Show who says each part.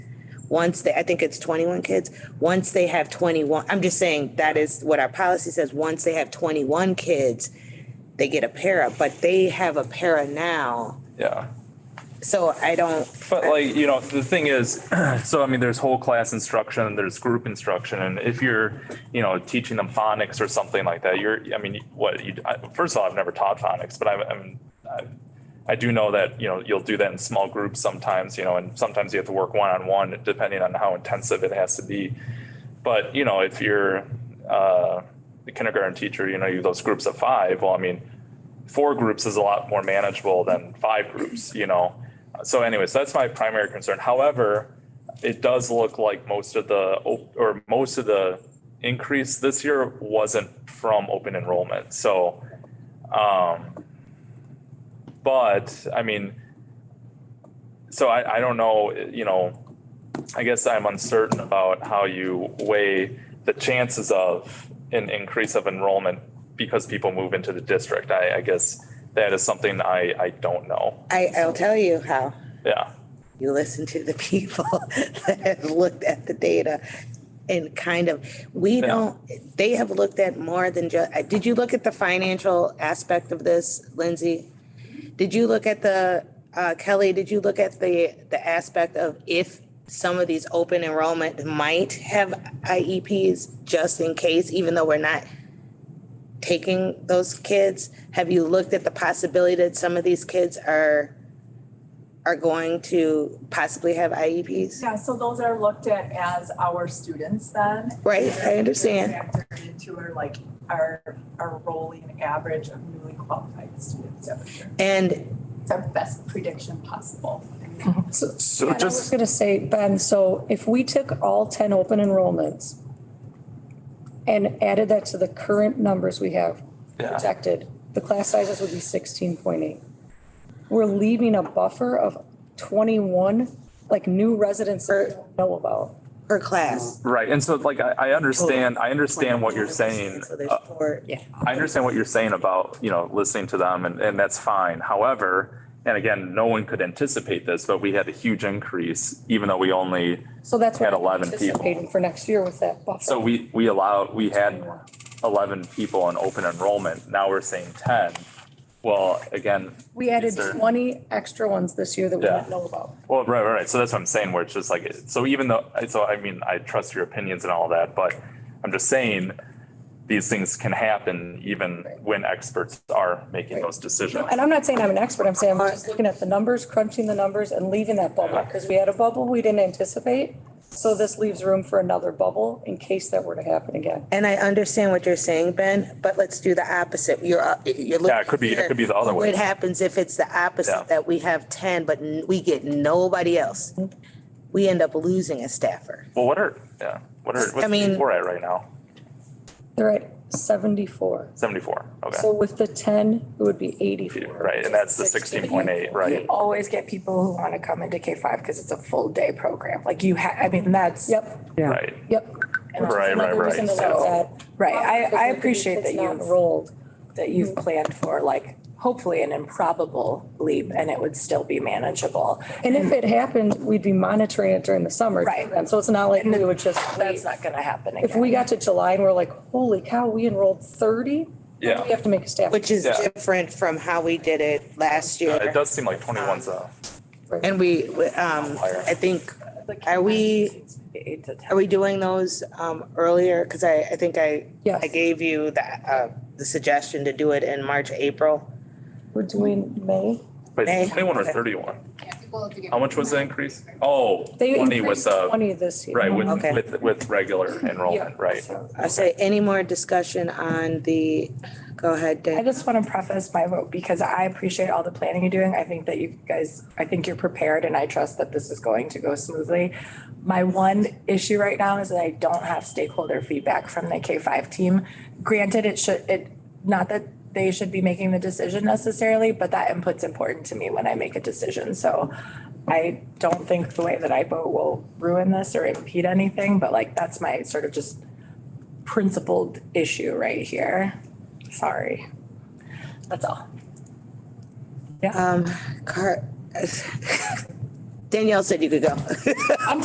Speaker 1: Once they, I think it's twenty-one kids, once they have twenty-one, I'm just saying that is what our policy says, once they have twenty-one kids, they get a para, but they have a para now,
Speaker 2: Yeah.
Speaker 1: so I don't,
Speaker 2: But like, you know, the thing is, so I mean, there's whole class instruction and there's group instruction. And if you're, you know, teaching them phonics or something like that, you're, I mean, what you, I- first of all, I've never taught phonics, but I, I mean, I, I do know that, you know, you'll do that in small groups sometimes, you know, and sometimes you have to work one-on-one depending on how intensive it has to be. But, you know, if you're, uh, the kindergarten teacher, you know, you have those groups of five, well, I mean, four groups is a lot more manageable than five groups, you know? So anyways, that's my primary concern. However, it does look like most of the, op- or most of the increase this year wasn't from open enrollment, so. Um, but, I mean, so I, I don't know, you know, I guess I'm uncertain about how you weigh the chances of an increase of enrollment because people move into the district. I, I guess that is something I, I don't know.
Speaker 1: I, I'll tell you how.
Speaker 2: Yeah.
Speaker 1: you listen to the people that have looked at the data and kind of, we
Speaker 2: Yeah.
Speaker 1: don't, they have looked at more than just, did you look at the financial aspect of this, Lindsay? Did you look at the, uh, Kelly, did you look at the, the aspect of if some of these open enrollment might have IEPs just in case, even though we're not taking those kids? Have you looked at the possibility that some of these kids are, are going to possibly have E IEPs?
Speaker 3: Yeah, so those are looked at as our students then.
Speaker 1: Right, I understand.
Speaker 3: Factored into our like our our rolling average of newly qualified students every year.
Speaker 1: And
Speaker 3: It's our best prediction possible.
Speaker 4: So-
Speaker 2: So
Speaker 4: And I was gonna say, Ben, so if we took all ten open enrollments and added that to the current numbers we have
Speaker 2: Yeah.
Speaker 4: projected, the class sizes would be sixteen point eight. We're leaving a buffer of twenty-one, like new residents that we don't know about.
Speaker 1: per class.
Speaker 2: Right, and so like I, I understand, I understand what you're saying.
Speaker 1: So there's
Speaker 2: Uh,
Speaker 1: four. Yeah.
Speaker 2: I understand what you're saying about, you know, listening to them and, and that's fine. However, and again, no one could anticipate this, but we had a huge increase, even though we only,
Speaker 4: So that's what
Speaker 2: Had
Speaker 4: we're
Speaker 2: 11 people.
Speaker 4: anticipating for next year with that buffer.
Speaker 2: so we, we allowed, we had eleven people in open enrollment. Now we're saying ten. Well, again.
Speaker 4: We added
Speaker 2: is there-
Speaker 4: twenty extra ones this year that we
Speaker 2: Yeah.
Speaker 4: didn't know about.
Speaker 2: Well, right, right, right. So that's what I'm saying, where it's just like, so even though, so I mean, I trust your opinions and all that, but I'm just saying these things can happen even when experts are making those decisions.
Speaker 4: And I'm not saying I'm an expert, I'm saying I'm just looking at the numbers, crunching the numbers and leaving that bubble, because we had a bubble we didn't anticipate. So this leaves room for another bubble in case that were to happen again.
Speaker 1: And I understand what you're saying, Ben, but let's do the opposite. You're, uh, you're looking.
Speaker 2: Yeah, it could be- it
Speaker 1: here.
Speaker 2: could be the other way.
Speaker 1: What happens if it's the
Speaker 2: Yeah.
Speaker 1: opposite, that we have ten, but n- we get nobody else? We end up losing a staffer.
Speaker 2: Well, what are, yeah, what are,
Speaker 1: I
Speaker 2: what's
Speaker 1: mean-
Speaker 2: We're at right now?
Speaker 4: They're at seventy-four.
Speaker 2: Seventy-four,
Speaker 4: So
Speaker 2: okay.
Speaker 4: with the ten, it would be eighty-four.
Speaker 2: Right, and that's the sixteen point eight,
Speaker 5: You
Speaker 2: right?
Speaker 5: always get people who want to come into K five because it's a full day program. Like you ha, I mean, that's.
Speaker 4: Yep,
Speaker 2: Right,
Speaker 4: yep.
Speaker 2: Right,
Speaker 5: And it's
Speaker 2: right,
Speaker 5: another
Speaker 2: right.
Speaker 5: reason to
Speaker 2: So-
Speaker 5: look at- Right, I, I
Speaker 4: Because
Speaker 5: appreciate
Speaker 4: it's
Speaker 5: that
Speaker 4: not
Speaker 5: you've,
Speaker 4: Enrolled.
Speaker 5: that you've planned for like hopefully an improbable leap and it would still be manageable.
Speaker 4: And if it happened, we'd be monitoring it during the summer.
Speaker 5: Right.
Speaker 4: And so it's not like we would just
Speaker 5: That's not going to happen again.
Speaker 4: If we got to July and we're like, holy cow, we enrolled thirty?
Speaker 2: Yeah.
Speaker 4: We have to make a staff.
Speaker 1: Which is
Speaker 2: Yeah.
Speaker 1: different from how we did it last
Speaker 2: Uh,
Speaker 1: year.
Speaker 2: it does seem like twenty-one's a,
Speaker 1: And we, we, um, I think, are we,
Speaker 5: Eight to ten.
Speaker 1: are we doing those, um, earlier? Cause I, I think I,
Speaker 4: Yes.
Speaker 1: I gave you the, uh, the suggestion to do it in March, April.
Speaker 4: We're doing May.
Speaker 2: but
Speaker 1: Hey.
Speaker 2: it's twenty-one or thirty-one?
Speaker 6: Yeah, people have to get-
Speaker 2: How much was the increase? Oh,
Speaker 4: They
Speaker 2: twenty was
Speaker 4: increased
Speaker 2: uh
Speaker 4: twenty this year.
Speaker 2: right, with,
Speaker 1: Okay.
Speaker 2: with, with regular
Speaker 4: Oh,
Speaker 2: enrollment, right?
Speaker 1: I say any more discussion on the, go ahead,
Speaker 5: I
Speaker 1: Dan.
Speaker 5: just want to preface my vote because I appreciate all the planning you're doing. I think that you guys, I think you're prepared and I trust that this is going to go smoothly. My one issue right now is that I don't have stakeholder feedback from the K five team. Granted, it should, it, not that they should be making the decision necessarily, but that input's important to me when I make a decision. So I don't think the way that I vote will ruin this or impede anything, but like that's my sort of just principled issue right here. Sorry. That's all.
Speaker 1: Um, Car, Danielle said you could go.